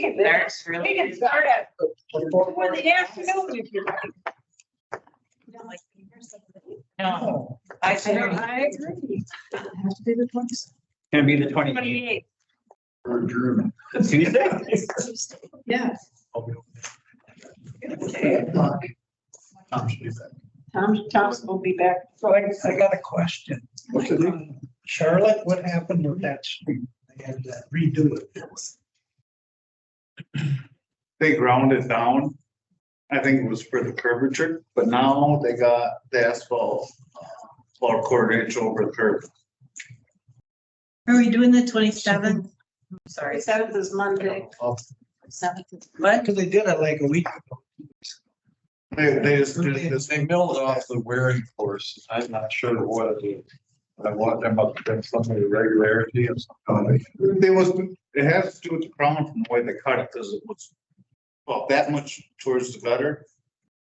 can, Starts really. we can start at, for the afternoon if you like. No, Oh, I said, I agree. Gonna be the twenty Twenty-eight. eighth. Tuesday? Yes, Tom, Thompson will be back. So I I got a question. Charlotte, what happened with that street? They had to redo it. they ground it down. I think it was for the curvature, but now they got the asphalt uh, about a quarter inch over the curb. are we doing the twenty-seventh? sorry. sorry, seventh is Monday. What? Because they did it like a week ago. They, they just did this. They milled off the wearing course. I'm not sure what it is. I want them up to some of the regularity of something. They was, it has to do with the crown from the way they cut it, because it was about that much towards the gutter.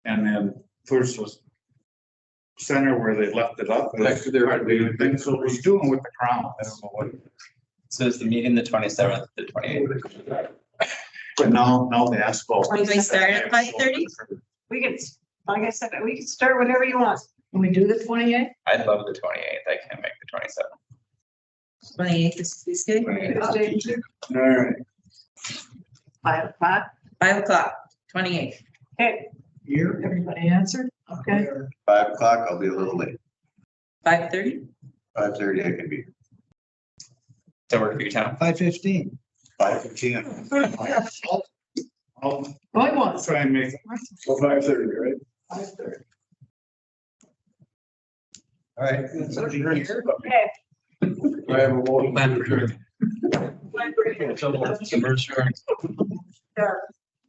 And then towards the center where they left it up. Like they're- Things so it was doing with the crown. I don't know what. So is the meeting the twenty seventh, the twenty eighth? But now, now the asphalt. Can we start at 5:30? We can, like I said, we can start whenever you want. Can we do the twenty-eighth? I'd love the twenty eighth. I can't make the twenty seventh. Twenty-eighth is Tuesday, All right, Five o'clock. five o'clock, twenty-eighth. Okay, Here. Everybody answered? Okay, Five o'clock, I'll be a little late. five thirty? Five thirty, I can be. So work for you, Tom. Five fifteen. Five fifteen. I'll Going once. try and make, So five thirty, right? All right. okay. I have a motion. Library. Submerge. Sure.